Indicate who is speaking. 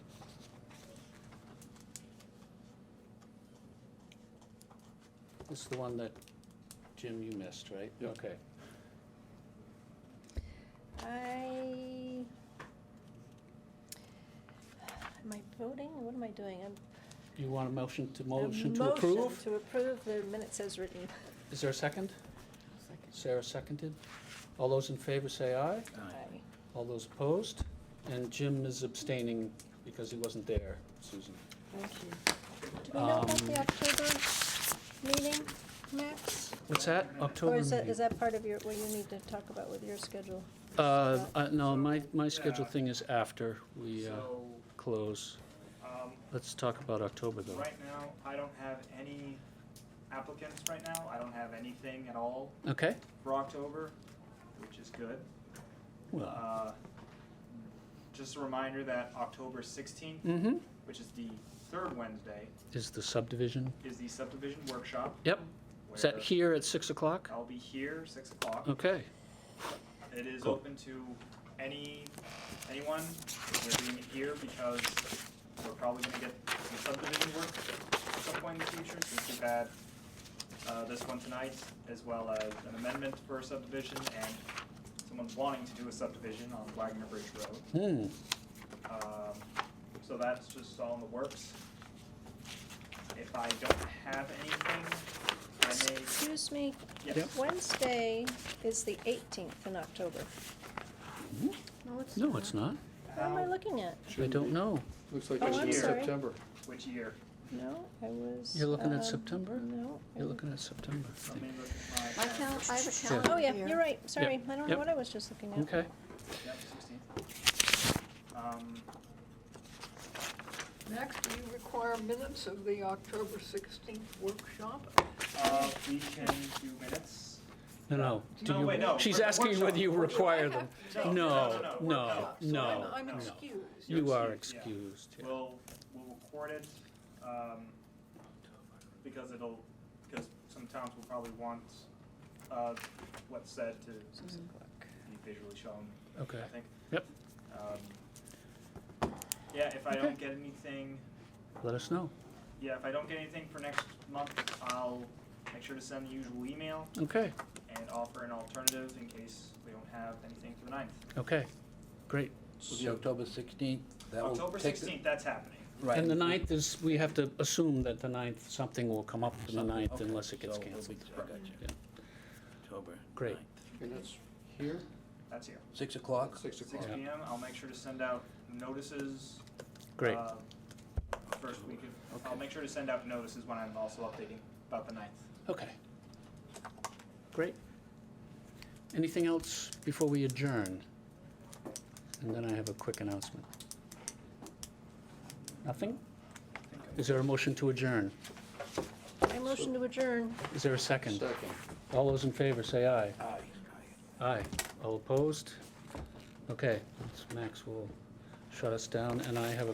Speaker 1: This is the one that, Jim, you missed, right?
Speaker 2: Yep.
Speaker 1: Okay.
Speaker 3: I, am I voting? What am I doing? I'm-
Speaker 1: You want a motion to,
Speaker 3: a
Speaker 1: motion to approve?
Speaker 3: Motion to approve the minutes as written.
Speaker 1: Is there a second?
Speaker 4: Second.
Speaker 1: Sarah seconded. All those in favor say aye.
Speaker 3: Aye.
Speaker 1: All those opposed? And Jim is abstaining because he wasn't there, Susan.
Speaker 4: Thank you.
Speaker 3: Do we know about
Speaker 1: Um,
Speaker 3: the October meeting, Max?
Speaker 1: What's that?
Speaker 3: Or
Speaker 1: October
Speaker 3: is that,
Speaker 1: meeting?
Speaker 3: is that part of your, what you need to talk about with your schedule?
Speaker 1: Uh, uh, no, my, my
Speaker 5: Yeah.
Speaker 1: schedule thing is after we, uh,
Speaker 5: So,
Speaker 1: close.
Speaker 5: um,
Speaker 1: Let's talk about October though.
Speaker 5: right now, I don't have any applicants right now. I don't have anything at all
Speaker 1: Okay?
Speaker 5: for October, which is good.
Speaker 1: Well,
Speaker 5: Uh, just a reminder that October sixteenth,
Speaker 1: mm-hmm.
Speaker 5: which is the third Wednesday,
Speaker 1: Is the subdivision?
Speaker 5: is the subdivision workshop.
Speaker 1: Yep. Is that
Speaker 5: where Uh,
Speaker 1: here at six o'clock?
Speaker 5: I'll be here, six o'clock.
Speaker 1: Okay.
Speaker 5: It is
Speaker 1: Cool.
Speaker 5: open to any, anyone. We're doing it here because we're probably gonna get some subdivision work at some point in the future, since we've had uh, this one tonight, as well as an amendment for a subdivision and someone wanting to do a subdivision on Wagner Bridge
Speaker 1: Hmm.
Speaker 5: Road. Um, so that's just all in the works. If I don't have anything, I may,
Speaker 3: Excuse me,
Speaker 5: yes.
Speaker 1: Yep.
Speaker 3: Wednesday is the 18th in October.
Speaker 4: No, it's
Speaker 1: No, it's not.
Speaker 3: What am I
Speaker 5: How-
Speaker 3: looking at?
Speaker 1: I
Speaker 2: Shouldn't
Speaker 1: don't
Speaker 2: be.
Speaker 1: know.
Speaker 2: Looks like
Speaker 3: Oh,
Speaker 2: it's
Speaker 5: I'm
Speaker 2: in
Speaker 5: sorry.
Speaker 2: September.
Speaker 5: Which year?
Speaker 3: No, I was.
Speaker 1: You're looking
Speaker 3: um,
Speaker 1: at September?
Speaker 3: No. I
Speaker 1: You're
Speaker 3: was-
Speaker 1: looking at September. I
Speaker 5: Let
Speaker 1: think.
Speaker 5: me look at my.
Speaker 4: I
Speaker 5: calendar.
Speaker 4: cal- I have a
Speaker 1: Yeah.
Speaker 4: calendar
Speaker 3: Oh, yeah,
Speaker 4: here.
Speaker 3: you're right, sorry, I don't know
Speaker 1: yep.
Speaker 3: what I was just looking at.
Speaker 1: Okay.
Speaker 5: Yep, sixteen. Um,
Speaker 6: Max, do you require minutes of the October 16th workshop?
Speaker 5: uh, we can do minutes.
Speaker 1: No, no. Do
Speaker 5: No,
Speaker 1: you-
Speaker 5: wait, no,
Speaker 1: She's
Speaker 5: for the
Speaker 1: asking whether
Speaker 5: workshop.
Speaker 1: you require them.
Speaker 6: No,
Speaker 1: No,
Speaker 5: no,
Speaker 1: no,
Speaker 5: no,
Speaker 6: So
Speaker 1: no.
Speaker 6: I'm-
Speaker 5: no.
Speaker 6: I'm excused.
Speaker 5: You're
Speaker 1: You are
Speaker 5: excused, yeah.
Speaker 1: excused. yeah.
Speaker 5: We'll, we'll record it, um, because it'll, because some towns will probably want, uh, what's said to be visually shown,
Speaker 1: Okay.
Speaker 5: I think.
Speaker 1: Yep.
Speaker 5: Um, yeah, if I don't get anything,
Speaker 1: Let us know.
Speaker 5: yeah, if I don't get anything for next month, I'll make sure to send the usual email
Speaker 1: Okay,
Speaker 5: and offer an alternative in case we don't have anything for the ninth.
Speaker 1: okay. Great.
Speaker 7: Was it October 16th? That will
Speaker 5: October
Speaker 7: take the-
Speaker 5: sixteenth, that's happening.
Speaker 7: Right.
Speaker 1: And the ninth is, we have to assume that the ninth, something will come up for the ninth
Speaker 7: Okay,
Speaker 1: unless it gets
Speaker 7: so we'll
Speaker 1: canceled.
Speaker 7: be- I got you.
Speaker 1: Yeah.
Speaker 7: October
Speaker 1: Great.
Speaker 7: 9th.
Speaker 2: And it's here,
Speaker 5: That's here.
Speaker 7: Six o'clock?
Speaker 2: six
Speaker 5: Six
Speaker 2: o'clock.
Speaker 1: Yeah.
Speaker 5: P M, I'll make sure to send out notices.
Speaker 1: Great.
Speaker 5: uh, First week of, I'll make sure to send out notices when I'm also updating about the ninth.
Speaker 1: Okay. Great. Anything else before we adjourn? And then I have a quick announcement. Nothing? Is there a motion to adjourn?
Speaker 3: I motion to adjourn.
Speaker 1: Is there a second?
Speaker 2: Second.
Speaker 1: All those in favor, say aye.
Speaker 7: Aye.
Speaker 1: Aye. All opposed? Okay, Max will shut us down, and I have a